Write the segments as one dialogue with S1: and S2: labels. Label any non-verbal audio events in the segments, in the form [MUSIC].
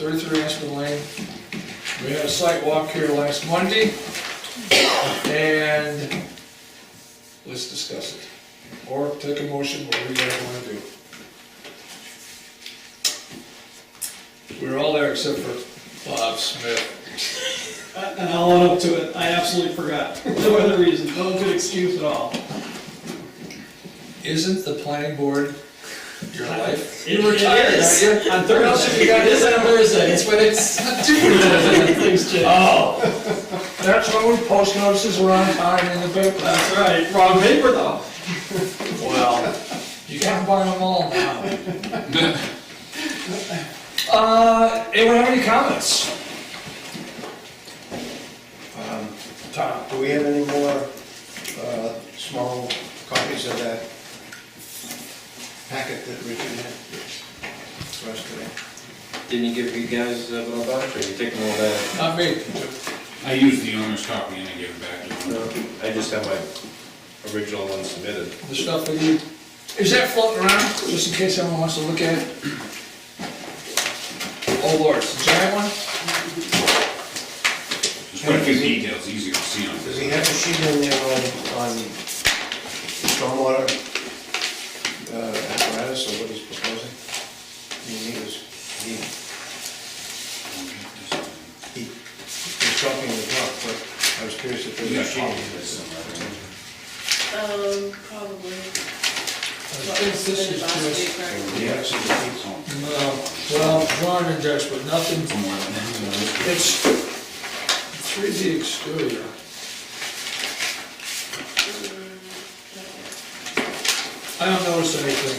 S1: thirty-three Aspen Lane. We had a site walk here last Monday, and let's discuss it. Or take a motion, whatever you guys wanna do. We were all there except for Bob Smith.
S2: And I'll own up to it, I absolutely forgot, [LAUGHS] for no other reason, no good excuse at all.
S1: Isn't the planning board your life?
S2: It is.
S1: Aren't you?
S2: On
S1: What else have you got?
S2: Thursday, it is [LAUGHS] on Thursday, it's when it's, [LAUGHS] things change.
S1: Oh, that's when we post notices, we're on time in the paper.
S2: That's right, wrong paper though.
S1: Well, you can't buy them all now. [LAUGHS] Uh, anyone have any comments? Tom?
S3: Do we have any more uh, small copies of that packet that Richard had for us today?
S4: Didn't you give you guys uh, a little voucher, you take them all back?
S1: Not me.
S5: I used the owner's copy and I gave it back to him.
S4: No, I just have my original one submitted.
S1: The stuff that you, is that floating around, just in case someone wants to look at it? Oh lord, it's a giant one?
S5: There's quite a few details, easier to see on
S3: Does he
S5: this.
S3: have a sheet in there on, on stormwater uh, apparatus or what he's proposing? I mean, he was, he, he was talking the talk, but I was curious if
S5: You
S3: there
S5: got
S3: was a sheet.
S5: copies of this somewhere, right?
S6: Um, probably. What
S1: think
S6: was
S1: this is
S6: submitted last
S1: just-
S6: week, right?
S3: Yeah, so he's-
S1: No, well, drawn and dashed, but nothing,
S5: Somewhere in there.
S1: it's three D exterior. I don't notice anything.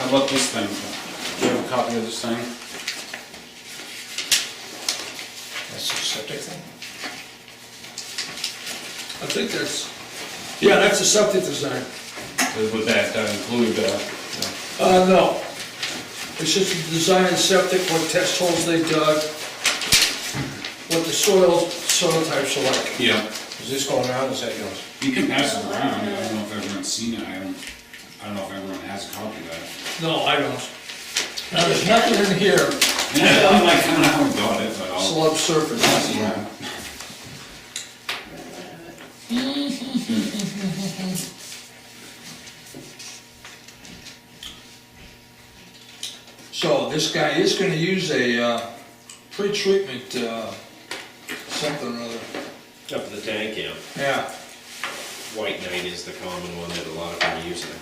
S5: How about this thing? Do you have a copy of this thing?
S3: That's a septic thing?
S1: I think that's, yeah, that's the septic design.
S5: Would that uh, include, uh,
S1: Uh, no. It's just the design of septic, what test holes they dug, what the soil, soil types are like.
S5: yeah,
S3: Is this going around, is that yours?
S5: you can pass it around, I don't know if everyone's seen it, I don't, I don't know if everyone has a copy of that.
S1: No, I don't. Now, there's nothing in here,
S5: Yeah, I'm like, I don't know who got it, but I'll.
S1: slub surface.
S5: Yeah.
S1: So this guy is gonna use a, uh, pre-treatment, uh, something or other.
S4: Up in the tank, yeah.
S1: Yeah,
S4: White knight is the common one that a lot of them use now.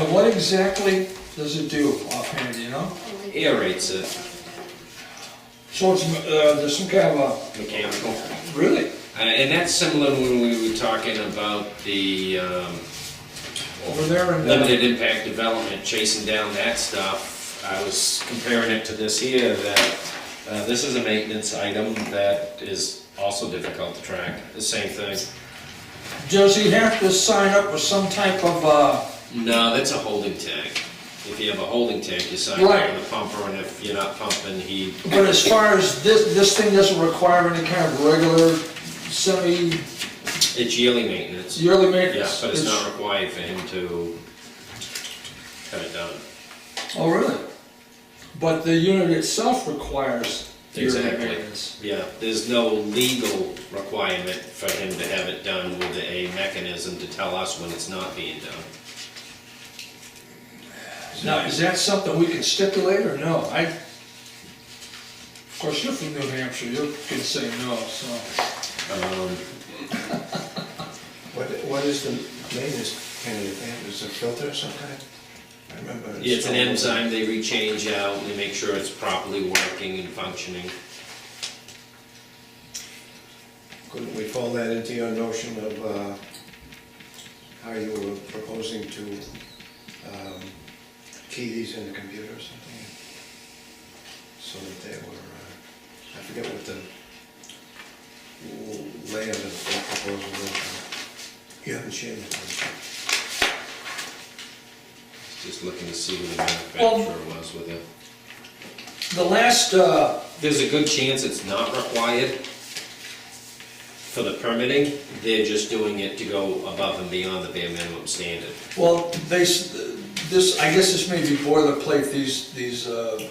S1: and what exactly does it do offhand, you know?
S6: Mm-hmm.
S4: Aerates it,
S1: So it's, uh, there's some kind of
S4: mechanical.
S1: a, really?
S4: Uh, And that's similar when we were talking about the um,
S1: Over there and- uh,
S4: Limited impact development, chasing down that stuff. I was comparing it to this here, that uh, this is a maintenance item that is also difficult to track, the same thing.
S1: Does he have to sign up with some type of, uh,
S4: No, that's a holding tank. If you have a holding tank, you sign up
S1: Right.
S4: with a pumper, and if you're not pumping, he,
S1: But as far as this, this thing doesn't require any kind of regular semi
S4: it's yearly maintenance. Yeah,
S1: yearly
S4: but
S1: maintenance?
S4: it's not required for him to cut it down.
S1: Oh, really? But the unit itself requires yearly
S4: Exactly.
S1: maintenance?
S4: Yeah, there's no legal requirement for him to have it done with a mechanism to tell us when it's not being done.
S1: Now, is that something we can stipulate or no? I, of course, you're from New Hampshire, you can say no, so.
S4: Um,
S3: What, what is the maintenance candidate, they have, is it a filter of some kind? I remember.
S4: yeah, It's an enzyme they rechange out, and they make sure it's properly working and functioning.
S3: Couldn't we fold that into your notion of, uh, how you were proposing to, um, key these in the computer or something? So that they were, uh, I forget what the l- layout of the proposal was. You haven't changed it.
S4: Just looking to see what the manufacturer was with it.
S1: The last, uh,
S4: There's a good chance it's not required for the permitting. They're just doing it to go above and beyond the bare minimum standard.
S1: well, they, s- this, I guess this may be boilerplate, these, these, uh,